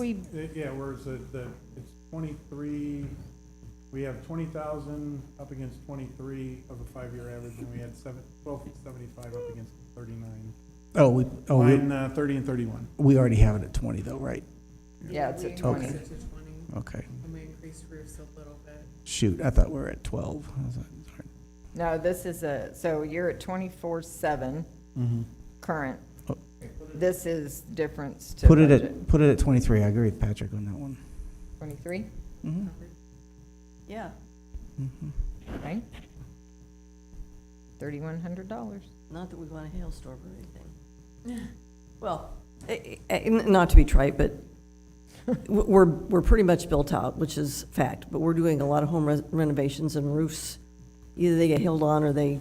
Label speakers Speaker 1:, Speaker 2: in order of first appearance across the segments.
Speaker 1: We,
Speaker 2: Uh, Yeah, whereas the, the, it's twenty-three, we have twenty thousand up against twenty-three of a five-year average, and we had seven, twelve seventy-five up against thirty-nine.
Speaker 3: Oh, we, oh, we,
Speaker 2: Line, uh, thirty and thirty-one.
Speaker 3: we already have it at twenty though, right?
Speaker 1: yeah, it's
Speaker 4: we
Speaker 1: at
Speaker 3: Okay.
Speaker 1: twenty.
Speaker 4: increased it to twenty,
Speaker 3: Okay,
Speaker 4: and we increased roofs a little bit.
Speaker 3: shoot, I thought we were at twelve. I was like, sorry.
Speaker 1: No, this is a, so you're at twenty-four seven
Speaker 2: Mm-hmm.
Speaker 1: current.
Speaker 3: Oh.
Speaker 1: This is difference to
Speaker 3: Put it
Speaker 1: budget.
Speaker 3: at, put it at twenty-three, I agree with Patrick on that one.
Speaker 1: Twenty-three,
Speaker 3: Mhm,
Speaker 5: Yeah,
Speaker 3: mhm.
Speaker 1: right? Thirty-one hundred dollars.
Speaker 5: not that we want a hailstorm or anything. Well, eh, eh, eh, not to be trite, but w- we're, we're pretty much built out, which is fact, but we're doing a lot of home res- renovations and roofs. Either they get held on or they,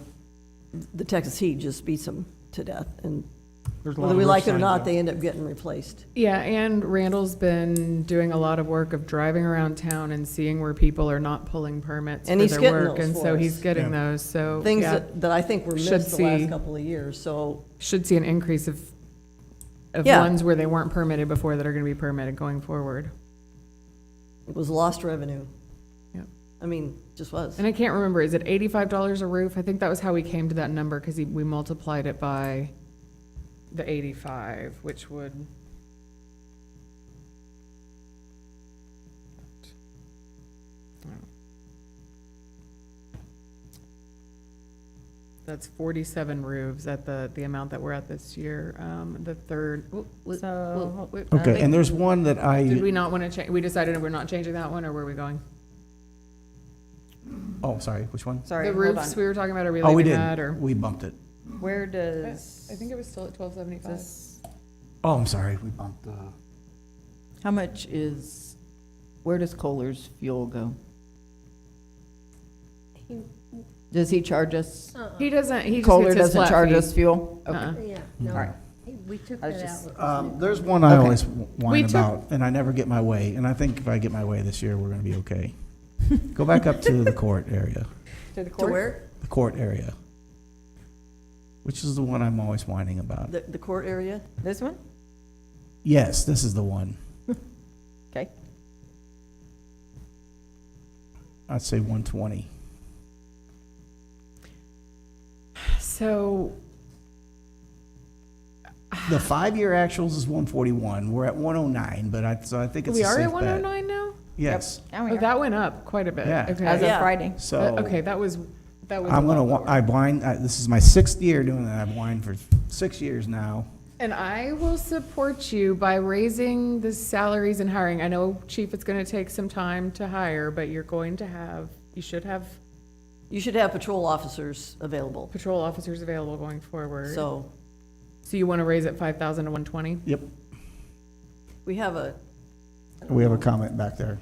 Speaker 5: the Texas heat just beats them to death. And
Speaker 2: There's a lot
Speaker 5: whether
Speaker 2: of
Speaker 5: we
Speaker 2: roof
Speaker 5: like it or
Speaker 2: signs
Speaker 5: not,
Speaker 2: up.
Speaker 5: they end up getting replaced.
Speaker 4: Yeah, and Randall's been doing a lot of work of driving around town and seeing where people are not pulling permits for
Speaker 5: And he's
Speaker 4: their
Speaker 5: getting
Speaker 4: work.
Speaker 5: those
Speaker 4: And
Speaker 5: for
Speaker 4: so
Speaker 5: us.
Speaker 4: he's getting
Speaker 2: Yeah.
Speaker 4: those, so,
Speaker 5: Things
Speaker 4: yeah,
Speaker 5: that, that I think were
Speaker 4: Should
Speaker 5: missed the
Speaker 4: see.
Speaker 5: last couple of years, so
Speaker 4: should see an increase of, of
Speaker 5: Yeah.
Speaker 4: ones where they weren't permitted before that are gonna be permitted going forward.
Speaker 5: it was lost revenue.
Speaker 4: Yep.
Speaker 5: I mean, just was.
Speaker 4: And I can't remember, is it eighty-five dollars a roof? I think that was how we came to that number, because we multiplied it by the eighty-five, which would. That's forty-seven roofs at the, the amount that we're at this year, um, the third. w- w-
Speaker 1: So, uh,
Speaker 4: w- w-
Speaker 3: Okay, and there's one that
Speaker 4: Did
Speaker 3: I,
Speaker 4: we not want to change, we decided we're not changing that one, or were we going?
Speaker 3: oh, sorry, which one?
Speaker 1: sorry,
Speaker 4: The
Speaker 1: hold
Speaker 4: roofs
Speaker 1: on.
Speaker 4: we were talking about, are we
Speaker 3: Oh, we
Speaker 4: leaving
Speaker 3: didn't.
Speaker 4: that, or?
Speaker 3: We bumped it.
Speaker 1: Where does?
Speaker 4: I think it was still at twelve seventy-five.
Speaker 1: this-
Speaker 3: Oh, I'm sorry, we bumped the,
Speaker 6: How much is, where does Kohler's fuel go? Does he charge us?
Speaker 4: He doesn't, he just
Speaker 6: Kohler
Speaker 4: gets his
Speaker 6: doesn't
Speaker 4: flat
Speaker 6: charge
Speaker 4: fee.
Speaker 6: us fuel? Okay.
Speaker 4: Uh-uh.
Speaker 7: Yeah,
Speaker 3: All
Speaker 7: no,
Speaker 3: right.
Speaker 7: we took
Speaker 6: I was
Speaker 7: that
Speaker 6: just-
Speaker 7: out.
Speaker 3: um, there's one I
Speaker 6: Okay.
Speaker 3: always whine
Speaker 4: took-
Speaker 3: about, and I never get my way, and I think if I get my way this year, we're gonna be okay. Go back up to the court area.
Speaker 1: To the
Speaker 5: To
Speaker 1: court?
Speaker 5: where?
Speaker 3: the court area, which is the one I'm always whining about.
Speaker 5: The, the court area?
Speaker 1: This one?
Speaker 3: Yes, this is the one.
Speaker 1: Okay.
Speaker 3: I'd say 120.
Speaker 4: So,
Speaker 3: The five-year actuals is 141. We're at 109, but I, so I think it's
Speaker 4: we
Speaker 3: a
Speaker 4: are
Speaker 3: safe
Speaker 4: at
Speaker 3: bet.
Speaker 4: one oh nine now?
Speaker 3: Yes.
Speaker 1: Now we
Speaker 4: Oh,
Speaker 1: are.
Speaker 4: that went up quite a bit.
Speaker 3: Yeah.
Speaker 1: As
Speaker 4: Okay.
Speaker 1: of
Speaker 5: Yeah.
Speaker 1: Friday.
Speaker 3: So
Speaker 4: That- Uh, Okay, that was, that was. a
Speaker 3: I'm
Speaker 4: lot
Speaker 3: gonna. whi-
Speaker 4: lower.
Speaker 3: I whined. I, this is my sixth year doing that. I've whined for six years now.
Speaker 4: And I will support you by raising the salaries and hiring. I know, chief, it's gonna take some time to hire, but you're going to have, you should have
Speaker 5: You should have patrol officers available,
Speaker 4: patrol officers available going forward.
Speaker 5: so.
Speaker 4: So you wanna raise it five thousand to one twenty?
Speaker 3: Yep.
Speaker 5: We have a,
Speaker 3: We have a comment back there.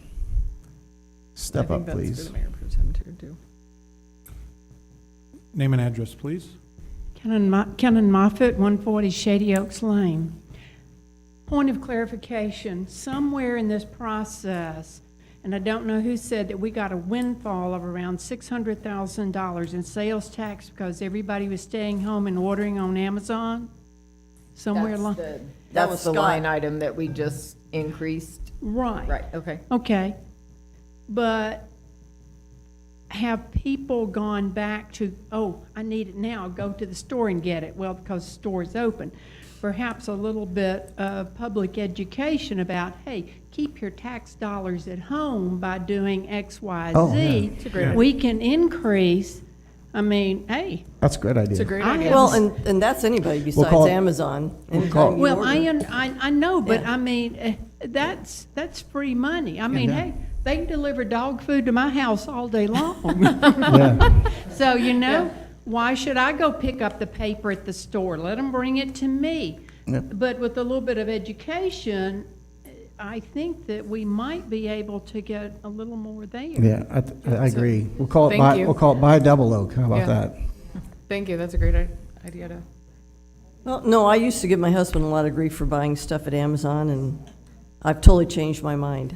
Speaker 3: Step up, please.
Speaker 2: Name and address, please.
Speaker 8: Kenan Mo- Kenan Moffett, 140 Shady Oaks Lane. Point of clarification, somewhere in this process, and I don't know who said that we got a windfall of around $600,000 in sales tax because everybody was staying home and ordering on Amazon? Somewhere
Speaker 1: That's
Speaker 8: along,
Speaker 1: the-
Speaker 5: That was
Speaker 1: That's the
Speaker 5: Scott.
Speaker 1: line item that we just increased.
Speaker 8: right.
Speaker 1: Right, okay.
Speaker 8: Okay. But have people gone back to, oh, I need it now, go to the store and get it? Well, because the store's open. Perhaps a little bit of public education about, hey, keep your tax dollars at home by doing X, Y,
Speaker 3: Oh, yeah.
Speaker 8: Z. We can increase, I mean, hey,
Speaker 3: That's a great idea.
Speaker 4: It's a great
Speaker 8: I
Speaker 4: idea.
Speaker 8: have-
Speaker 5: well, and, and that's anybody
Speaker 3: call
Speaker 5: besides
Speaker 3: it-
Speaker 5: Amazon.
Speaker 3: we'll
Speaker 5: Anytime
Speaker 3: call it-
Speaker 5: you
Speaker 8: Well,
Speaker 5: order.
Speaker 8: I, un- I, I know, but
Speaker 5: Yeah.
Speaker 8: I mean, eh, that's, that's free money. I mean,
Speaker 3: yeah.
Speaker 8: hey, they can deliver dog food to my house all day long.
Speaker 3: Yeah.
Speaker 8: So, you know, why should I go pick up the paper at the store? Let them bring it to me.
Speaker 3: Yep.
Speaker 8: But with a little bit of education, eh, I think that we might be able to get a little more there.
Speaker 3: Yeah, I, th- I I agree. We'll call it
Speaker 4: Thank
Speaker 3: by,
Speaker 4: you.
Speaker 3: we'll call it by double oak. How about
Speaker 4: Yeah.
Speaker 3: that?
Speaker 4: Thank you, that's a great i- idea to.
Speaker 5: Well, no, I used to give my husband a lot of grief for buying stuff at Amazon, and I've totally changed my mind.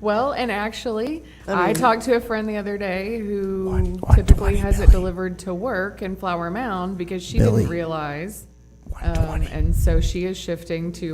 Speaker 4: Well, and actually,
Speaker 5: I
Speaker 4: I
Speaker 5: mean-
Speaker 4: talked to a friend the other day who
Speaker 3: What- what
Speaker 4: typically
Speaker 3: do I
Speaker 4: has it
Speaker 3: know?
Speaker 4: delivered to work in Flower Mound because she
Speaker 3: Billy.
Speaker 4: Uh, didn't realize. Um, and so she is shifting to